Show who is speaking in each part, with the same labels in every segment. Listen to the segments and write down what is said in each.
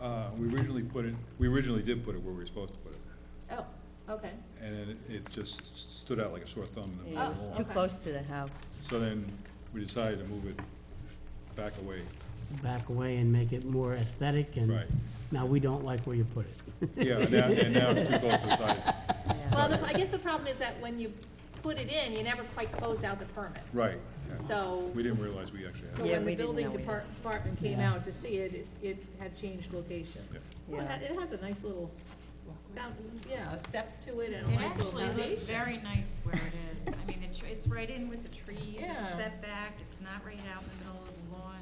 Speaker 1: Uh, we originally put it, we originally did put it where we were supposed to put it,
Speaker 2: Oh, okay.
Speaker 1: and then it- it just stood out like a sore thumb in the middle
Speaker 2: Yeah,
Speaker 1: of
Speaker 2: it's
Speaker 1: the
Speaker 2: Oh,
Speaker 3: It's
Speaker 1: wall.
Speaker 3: too
Speaker 2: okay.
Speaker 3: close to the house.
Speaker 1: So then, we decided to move it back away,
Speaker 4: back away and make it more aesthetic and.
Speaker 1: right,
Speaker 4: Now, we don't like where you put it.
Speaker 1: yeah, and now, and now it's too close to the side,
Speaker 3: Yeah.
Speaker 2: Well, the- I guess the problem is that when you put it in, you never quite closed out the permit.
Speaker 1: right, yeah.
Speaker 2: So,
Speaker 1: We didn't realize we actually
Speaker 2: so
Speaker 1: had it,
Speaker 3: Yeah,
Speaker 2: when
Speaker 3: we
Speaker 2: the
Speaker 3: didn't
Speaker 2: building
Speaker 3: know we
Speaker 2: depart-
Speaker 3: had-
Speaker 2: department came
Speaker 4: Yeah.
Speaker 2: out to see it, it, it had changed locations. Well,
Speaker 3: Yeah.
Speaker 2: it- it has a nice little, fountain- yeah, steps to it and a
Speaker 5: It
Speaker 2: nice little
Speaker 5: actually looks
Speaker 2: foundation.
Speaker 5: very nice where it is. I mean, it's, it's right in with the trees, it's
Speaker 2: Yeah.
Speaker 5: set back, it's not right out in the middle of the lawn.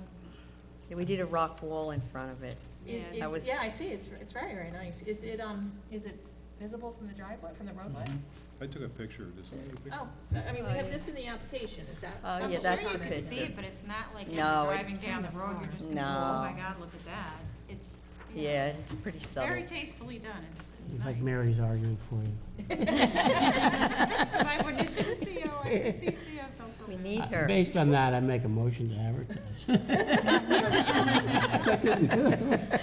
Speaker 3: Yeah, We did a rock wall in front of it.
Speaker 2: Is-
Speaker 5: Yeah,
Speaker 2: is-
Speaker 3: that was-
Speaker 2: Yeah, I see, it's, it's very, very nice. Is it, um, is it visible from the driveway, from the roadway?
Speaker 1: I took a picture of this, I took a picture.
Speaker 2: Oh, I mean, we
Speaker 3: Oh,
Speaker 2: have
Speaker 3: yeah.
Speaker 2: this in the application, is that?
Speaker 3: Oh, yeah,
Speaker 2: the
Speaker 3: that's
Speaker 5: I'm
Speaker 3: the
Speaker 5: sure you can
Speaker 3: picture.
Speaker 5: see it, but it's not like if you're
Speaker 3: No,
Speaker 5: driving
Speaker 3: it's-
Speaker 5: down the road, you're just gonna go, oh my
Speaker 3: No.
Speaker 5: God, look at that. It's,
Speaker 3: Yeah, it's pretty
Speaker 5: Very
Speaker 3: subtle.
Speaker 5: tastefully done, it's, it's
Speaker 4: It's like
Speaker 5: nice.
Speaker 4: Mary's arguing for you.
Speaker 5: If I would issue the CO, I could see CO felt so
Speaker 3: We
Speaker 5: bad.
Speaker 4: Uh,
Speaker 3: need her.
Speaker 4: Based on that, I make a motion to advertise.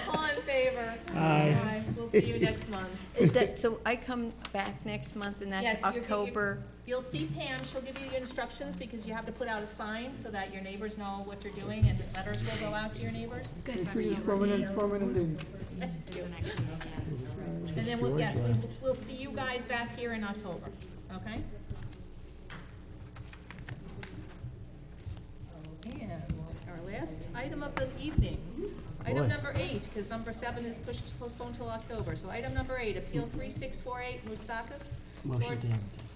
Speaker 2: All in favor?
Speaker 4: Aye.
Speaker 2: We'll see you next month.
Speaker 3: Is that, so I come back next month and
Speaker 2: Yes,
Speaker 3: that's
Speaker 2: you're- you're-
Speaker 3: October?
Speaker 2: You'll see Pam, she'll give you the instructions, because you have to put out a sign so that your neighbors know what you're doing, and letters will go out to your neighbors.
Speaker 5: Good. Do the next one, yes.
Speaker 2: And then, we'll yes, we will, we'll see you guys back here in October, okay? And our last item of the evening, item
Speaker 4: Boy.
Speaker 2: number eight, because number seven is pushed, postponed till October. So item number eight, Appeal three six four eight, Moustakis.
Speaker 4: Motion
Speaker 2: Lord-
Speaker 4: to advertise.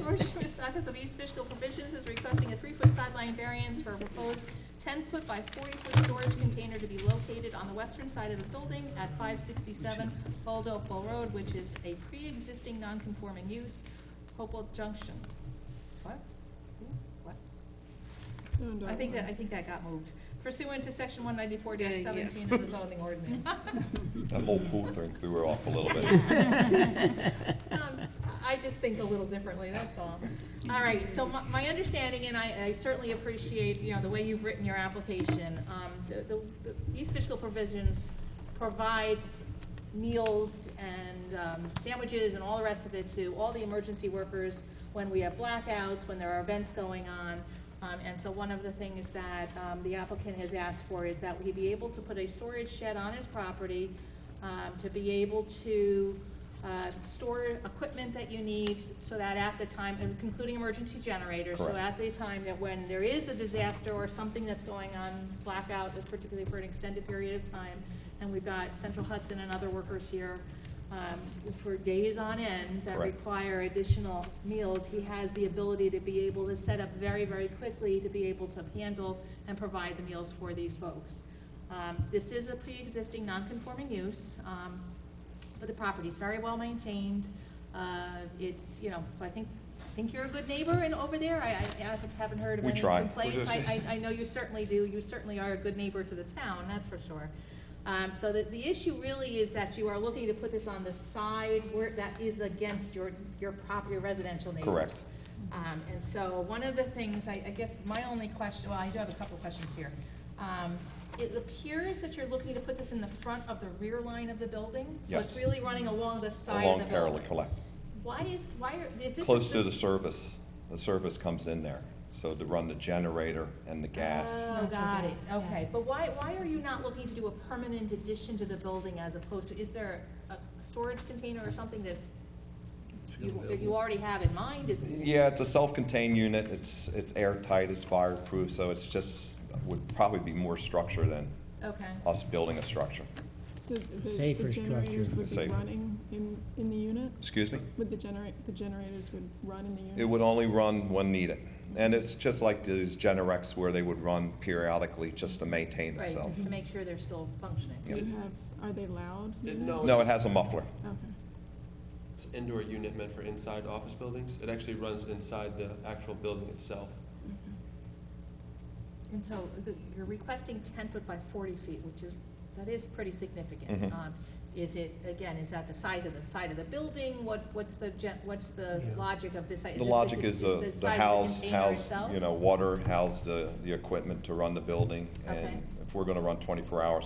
Speaker 2: George Moustakis of East Fishkill Provisions is requesting a three-foot sideline variance for a proposed ten-foot by forty-foot storage container to be located on the western side of the building at five sixty-seven Old Oakville Road, which is a pre-existing non-conforming use, Hopewell Junction. What? Who? What? I think that, I think that got moved. Pursuant to section one ninety-four seventeen of the zoning ordinance.
Speaker 6: That whole pool thing threw her off a little bit.
Speaker 2: Um, I just think a little differently, that's all. All right, so my, my understanding, and I, I certainly appreciate, you know, the way you've written your application, um, the, the, the East Fishkill Provisions provides meals and, um, sandwiches and all the rest of it to all the emergency workers when we have blackouts, when there are events going on. Um, and so one of the things that, um, the applicant has asked for is that we be able to put a storage shed on his property, um, to be able to, uh, store equipment that you need so that at the time, and including emergency generators, so
Speaker 6: Correct.
Speaker 2: at the time that when there is a disaster or something that's going on, blackout, particularly for an extended period of time, and we've got Central Hudson and other workers here, um, for days on end that
Speaker 6: Correct.
Speaker 2: require additional meals, he has the ability to be able to set up very, very quickly to be able to handle and provide the meals for these folks. Um, this is a pre-existing non-conforming use, um, but the property's very well maintained. Uh, it's, you know, so I think, I think you're a good neighbor and over there, I, I I haven't heard of
Speaker 6: We
Speaker 2: any
Speaker 6: try.
Speaker 2: complaints.
Speaker 6: We're just-
Speaker 2: I, I, I know you certainly do, you certainly are a good neighbor to the town, that's for sure. Um, so the, the issue really is that you are looking to put this on the side where, that is against your, your property residential neighbors.
Speaker 6: Correct.
Speaker 2: Um, and so one of the things, I, I guess my only question, well, I do have a couple of questions here. Um, it appears that you're looking to put this in the front of the rear line of the building? So it's
Speaker 6: Yes.
Speaker 2: really running along the side of
Speaker 6: Along
Speaker 2: the
Speaker 6: parallel
Speaker 2: building?
Speaker 6: collect,
Speaker 2: Why is, why are, is this?
Speaker 6: close to the service, the service comes in there, so to run the generator and the gas.
Speaker 2: Oh, got it, okay. But why, why are you not looking to do a permanent addition to the building as opposed to, is there a storage container or something that you, that you already have in mind? Is,
Speaker 6: Yeah, it's a self-contained unit, it's, it's airtight, it's fireproof, so it's just, would probably be more structure than
Speaker 2: okay,
Speaker 6: us building a structure.
Speaker 7: So the-
Speaker 4: Safer
Speaker 7: the generators
Speaker 4: structure.
Speaker 7: would be
Speaker 6: Safer.
Speaker 7: running in, in the unit?
Speaker 6: Excuse me?
Speaker 7: Would the generate, the generators would run in the unit?
Speaker 6: It would only run when needed, and it's just like these Generex where they would run periodically just to maintain
Speaker 2: right,
Speaker 6: itself.
Speaker 2: just to make sure they're still functioning.
Speaker 7: Do you have, are they loud?
Speaker 2: Oh,
Speaker 8: No,
Speaker 6: No, it has
Speaker 8: it's-
Speaker 6: a muffler.
Speaker 7: Okay.
Speaker 8: It's an indoor unit meant for inside office buildings. It actually runs inside the actual building itself.
Speaker 2: And so the- you're requesting ten foot by forty feet, which is, that is pretty significant.
Speaker 6: Mhm.
Speaker 2: Um, Is it, again, is that the size of the side of the building? What, what's the, gen- what's the
Speaker 4: Yeah.
Speaker 2: logic of this?
Speaker 6: The logic is
Speaker 2: the
Speaker 6: the, the
Speaker 2: size of
Speaker 6: house,
Speaker 2: container
Speaker 6: house,
Speaker 2: itself?
Speaker 6: you know, water, house the, the equipment to run the building.
Speaker 2: Okay.
Speaker 6: And if we're gonna run twenty-four hours,